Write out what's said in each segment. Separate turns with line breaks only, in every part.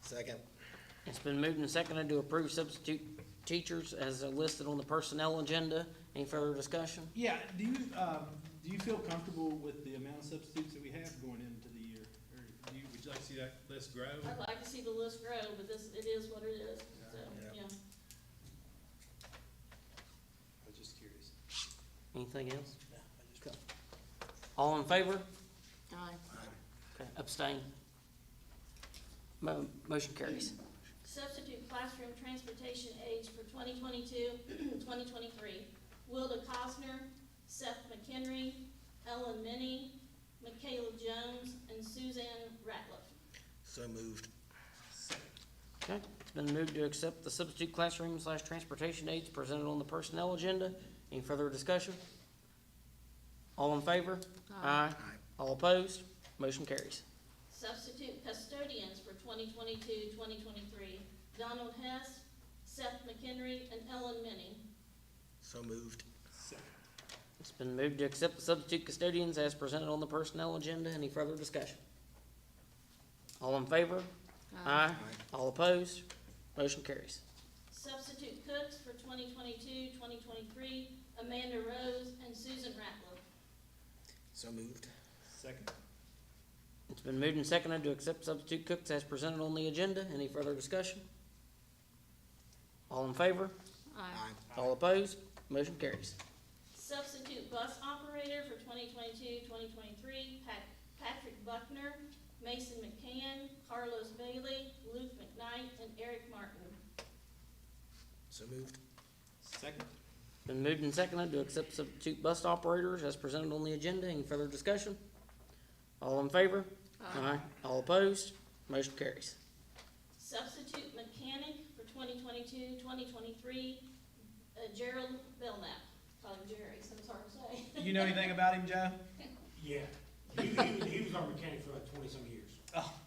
Second.
It's been moved and seconded to approve substitute teachers as listed on the personnel agenda. Any further discussion?
Yeah, do you, um, do you feel comfortable with the amount of substitutes that we have going into the year? Or do you, would you like to see that list grow?
I'd like to see the list grow, but this, it is what it is, so,
Yeah.
yeah.
I was just curious.
Anything else?
No, I just got.
All in favor?
Aye.
Okay, Abstain. Mo- motion carries.
Substitute classroom transportation aides for 2022, 2023. Wilda Cosner, Seth McHenry, Ellen Minnie, Michaela Jones, and Suzanne Ratliff.
So moved.
Okay, it's been moved to accept the substitute classroom slash transportation aids presented on the personnel agenda. Any further discussion? All in favor? Aye. All opposed? Motion carries.
Substitute custodians for 2022, 2023. Donald Hess, Seth McHenry, and Ellen Minnie.
So moved.
It's been moved to accept the substitute custodians as presented on the personnel agenda. Any further discussion? All in favor? Aye. All opposed? Motion carries.
Substitute cooks for 2022, 2023. Amanda Rose and Susan Ratliff.
So moved.
Second?
It's been moved and seconded to accept substitute cooks as presented on the agenda. Any further discussion? All in favor?
Aye.
All opposed? Motion carries.
Substitute bus operator for 2022, 2023, Pat- Patrick Buckner, Mason McCann, Carlos Bailey, Luke McKnight, and Eric Martin.
So moved.
Second?
Been moved and seconded to accept substitute bus operators as presented on the agenda. Any further discussion? All in favor? Aye. All opposed? Motion carries.
Substitute mechanic for 2022, 2023, uh, Gerald Belknap. Call him Jerry, so it's hard to say.
You know anything about him, Joe?
Yeah, he, he, was- he was our mechanic for like twenty-some years.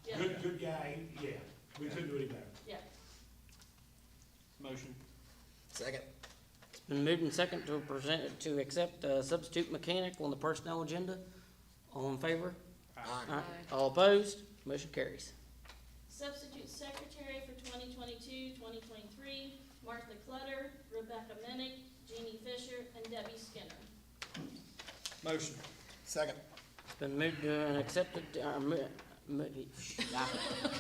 Yeah,
Good, good guy, he- yeah, we couldn't do any better.
yeah.
Motion?
Second.
It's been moved and seconded to present, to accept uh, substitute mechanic on the personnel agenda. All in favor?
Aye.
Aye. All opposed? Motion carries.
Substitute secretary for 2022, 2023, Martha Clutter, Rebecca Minnick, Jeannie Fisher, and Debbie Skinner.
Motion.
Second.
It's been moved and accepted, uh, mo- mo-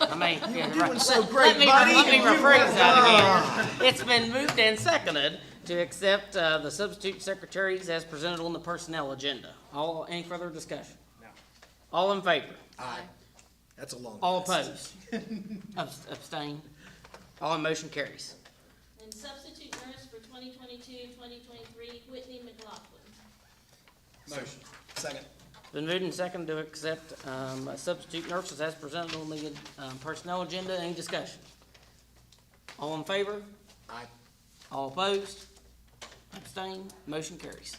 I mean. yeah, right.
so
Let me, let me rephrase that again. It's been moved and seconded to accept, uh, the substitute secretaries as presented on the personnel agenda. All, any further discussion?
No.
All in favor?
Aye. That's a long.
All
list.
opposed? Abs- Abstain? All in motion carries.
And substitute nurse for 2022, 2023, Whitney McLaughlin.
Motion.
Second.
Been moved and seconded to accept, um, substitute nurses as presented on the, um, personnel agenda. Any discussion? All in favor?
Aye.
All opposed? Abstain? Motion carries.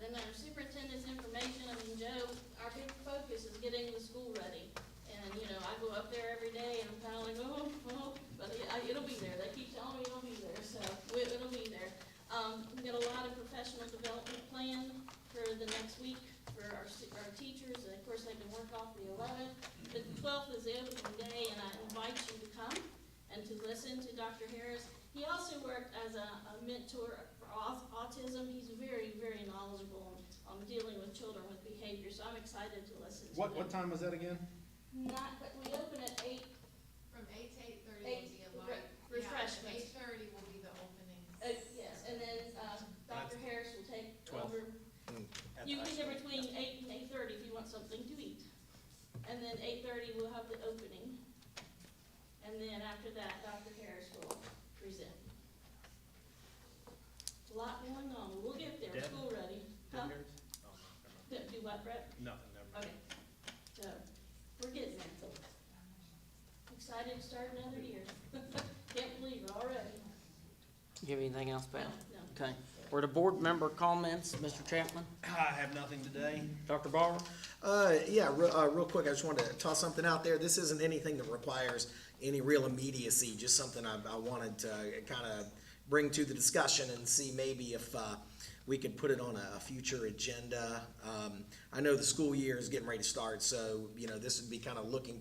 Then our superintendent's information, I mean, Joe, our big focus is getting the school ready. And, you know, I go up there every day and I'm kinda like, oh, oh, but it- I- it'll be there. They keep telling me it'll be there, so it- it'll be there. Um, we got a lot of professional development planned for the next week for our, stu- our teachers, and of course, they can work off the eleventh. The twelfth is the opening day, and I invite you to come and to listen to Dr. Harris. He also worked as a, a mentor for au- autism. He's very, very knowledgeable on dealing with children with behavior, so I'm excited to listen to him.
What, what time was that again?
Not, but we open at eight,
From eight to eight thirty
Eight
will be
re-
a light.
refreshments.
Eight thirty will be the opening.
uh, yes, and then, uh, Dr. Harris will take
Twelve.
over.
Mm.
You can get between eight and eight-thirty if you want something to eat. And then eight-thirty, we'll have the opening. And then after that, Dr. Harris will present. Lot going on, we'll get there,
Deb?
school ready. Huh?
Oh,
Do do what, Brett?
Nothing, never.
Okay, so, we're getting there. Excited to start another year. Can't believe it already.
You have anything else, Pat?
No.
Okay, were the board member comments, Mr. Chapman,
I have nothing today.
Dr. Barber?
Uh, yeah, real, uh, real quick, I just wanted to toss something out there. This isn't anything that requires any real immediacy, just something I, I wanted to kind of bring to the discussion and see maybe if, uh, we could put it on a, a future agenda. Um, I know the school year is getting ready to start, so, you know, this would be kind of looking